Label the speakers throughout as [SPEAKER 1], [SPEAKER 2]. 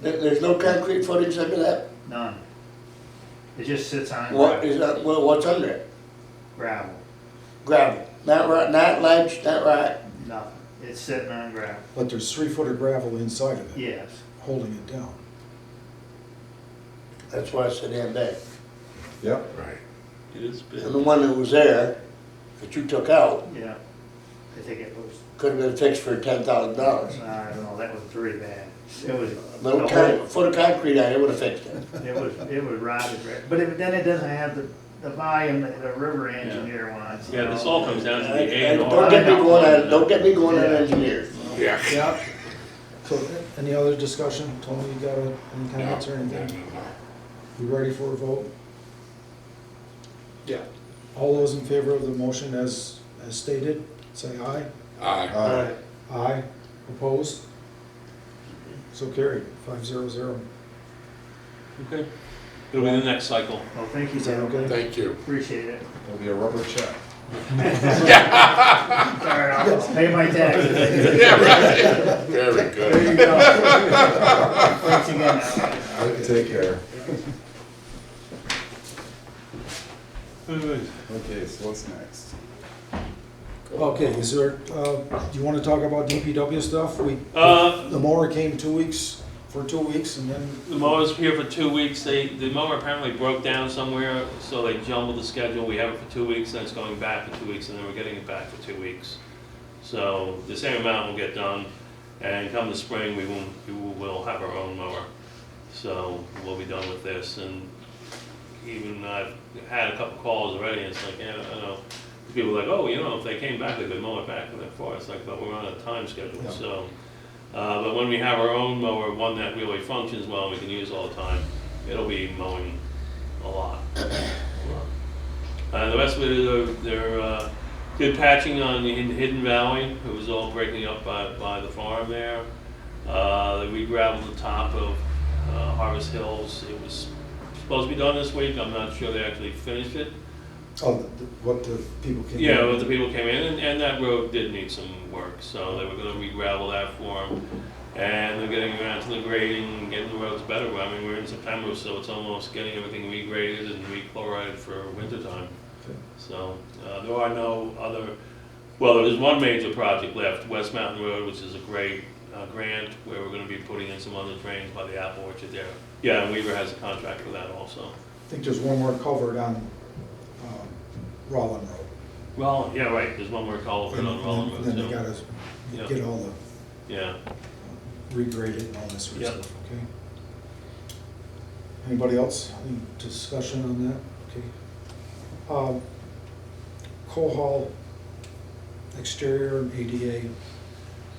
[SPEAKER 1] There, there's no concrete footings under that?
[SPEAKER 2] none. It just sits on
[SPEAKER 1] What is
[SPEAKER 2] gravel.
[SPEAKER 1] that, well, what's under it?
[SPEAKER 2] gravel,
[SPEAKER 1] Gravel, not right, not ledge, not right,
[SPEAKER 2] nothing. It's sitting on gravel,
[SPEAKER 3] But there's three foot of gravel inside of it,
[SPEAKER 2] yes.
[SPEAKER 3] holding it down.
[SPEAKER 1] that's why it's so damn big.
[SPEAKER 4] Yep.
[SPEAKER 5] Right. It is
[SPEAKER 1] And the one that was there, that you took out,
[SPEAKER 2] Yeah, I think it was,
[SPEAKER 1] could have been fixed for ten thousand dollars.
[SPEAKER 2] I don't know, that was pretty bad. It was.
[SPEAKER 1] Little
[SPEAKER 2] the whole-
[SPEAKER 1] con, foot of concrete on it would have fixed it.
[SPEAKER 2] It was, it was rotted, right? but it- then it doesn't have the, the volume that the river engineer wants. you
[SPEAKER 6] Yeah, this
[SPEAKER 2] know?
[SPEAKER 6] all comes down to the A
[SPEAKER 1] And
[SPEAKER 6] and
[SPEAKER 1] Don't
[SPEAKER 6] R.
[SPEAKER 1] get me going on, don't get me going on engineers.
[SPEAKER 5] Yeah.
[SPEAKER 3] Yeah. So, any other discussion? Tony, you got any comments or anything? You ready for a vote?
[SPEAKER 1] Yeah.
[SPEAKER 3] All those in favor of the motion as, as stated, say aye.
[SPEAKER 5] Aye.
[SPEAKER 4] Aye.
[SPEAKER 3] Aye. Opposed? So carried, five zero zero.
[SPEAKER 6] Okay. It'll be the next cycle.
[SPEAKER 2] Well, thank you,
[SPEAKER 3] Is that
[SPEAKER 2] gentlemen,
[SPEAKER 3] okay?
[SPEAKER 5] Thank you.
[SPEAKER 2] appreciate it.
[SPEAKER 4] It'll be a rubber check.
[SPEAKER 2] Sorry, I'll pay my taxes.
[SPEAKER 5] Yeah, right. Very
[SPEAKER 2] There
[SPEAKER 5] good.
[SPEAKER 2] you go. Thanks again, Alex.
[SPEAKER 4] Take care.
[SPEAKER 7] Okay, so what's next?
[SPEAKER 3] Okay, is there, uh, do you wanna talk about DPW stuff? We,
[SPEAKER 6] Uh,
[SPEAKER 3] the mower came two weeks, for two weeks, and then
[SPEAKER 6] The mower's here for two weeks. They, the mower apparently broke down somewhere, so they jumbled the schedule. We have it for two weeks, then it's going back for two weeks, and then we're getting it back for two weeks. So the same amount will get done, and come the spring, we will, we will have our own mower. So we'll be done with this, and even I've had a couple calls already, and it's like, yeah, I don't know. People are like, oh, you know, if they came back, they could mow it back and that far. It's like, but we're on a time schedule,
[SPEAKER 3] Yeah.
[SPEAKER 6] so. Uh, but when we have our own mower, one that really functions well, and we can use all the time, it'll be mowing a lot. Uh, the rest of it, uh, they're, uh, did patching on the Hidden Hidden Valley, it was all breaking up by, by the farm there. Uh, we gravelled the top of, uh, Harvest Hills, it was supposed to be done this week, I'm not sure they actually finished it.
[SPEAKER 3] Oh, the- the- what the people can.
[SPEAKER 6] Yeah, but the people came in, and, and that road did need some work, so they were gonna re-gravel that for 'em. And they're getting around to the grading, getting the roads better, I mean, we're in September, so it's almost getting everything regraded and re-chlorided for wintertime.
[SPEAKER 3] Okay.
[SPEAKER 6] So, uh, there are no other, well, there is one major project left, West Mountain Road, which is a great, uh, grant, where we're gonna be putting in some other drains by the apple orchard there. Yeah, and Weaver has a contract for that also.
[SPEAKER 3] I think there's one more culvert on, um, Rollin Road.
[SPEAKER 6] Well, yeah, right, there's one more call over on Roland Road,
[SPEAKER 3] Then they
[SPEAKER 6] too.
[SPEAKER 3] gotta
[SPEAKER 6] Yeah.
[SPEAKER 3] get all the
[SPEAKER 6] Yeah.
[SPEAKER 3] regraded and all this sort of
[SPEAKER 6] Yep.
[SPEAKER 3] stuff, okay? Anybody else, any discussion on that? Okay. Um, Cohol exterior and ADA,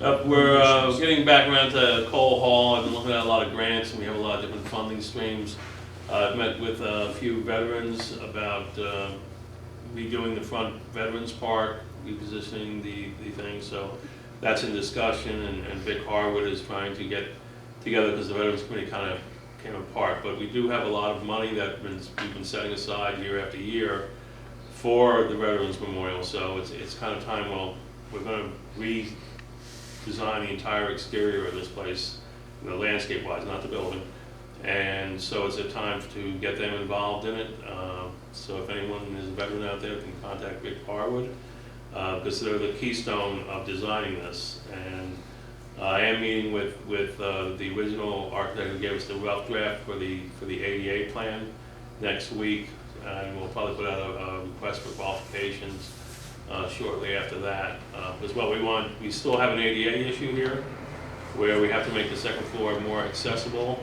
[SPEAKER 6] Yep, we're uh, getting back around to Cole Hall. I've been looking at a lot of grants, and we have a lot of different funding streams. Uh, I've met with a few veterans about uh, redoing the front Veterans Park, repositioning the, the thing, so that's in discussion, and and Vic Harwood is trying to get together, because the Veterans Committee kind of came apart, but we do have a lot of money that been- we've been setting aside year after year for the Veterans Memorial, so it's, it's kind of time, well, we're gonna re, design the entire exterior of this place, you know, landscape wise, not the building. And so it's a time to get them involved in it. Uh, So if anyone is a veteran out there, can contact Vic Harwood, uh, because they're the keystone of designing this. And uh, I am meeting with, with uh, the original architect who gave us the rough draft for the, for the ADA plan next week. And we'll probably put out a, a request for qualifications uh, shortly after that. Uh, Because what we want, we still have an ADA issue here, where we have to make the second floor more accessible.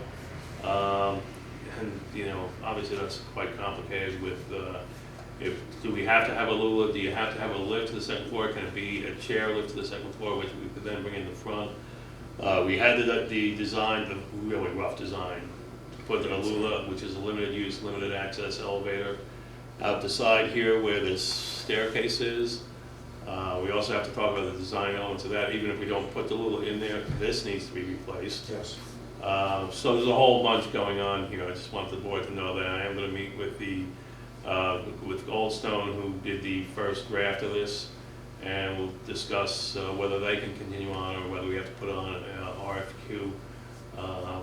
[SPEAKER 6] Um, And, you know, obviously that's quite complicated with, uh, if, do we have to have a lula, do you have to have a lift to the second floor? Can it be a chair lift to the second floor, which we could then bring in the front? Uh, We had the, the design, the really rough design, to put the lula, which is a limited use, limited access elevator, out the side here where this staircase is. Uh, We also have to talk about the design elements of that, even if we don't put the lula in there, this needs to be replaced.
[SPEAKER 3] yes.
[SPEAKER 6] Uh, So there's a whole bunch going on here. I just want the board to know that I am going to meet with the, uh, with Goldstone, who did the first draft of this, and we'll discuss uh, whether they can continue on or whether we have to put on an RFQ uh,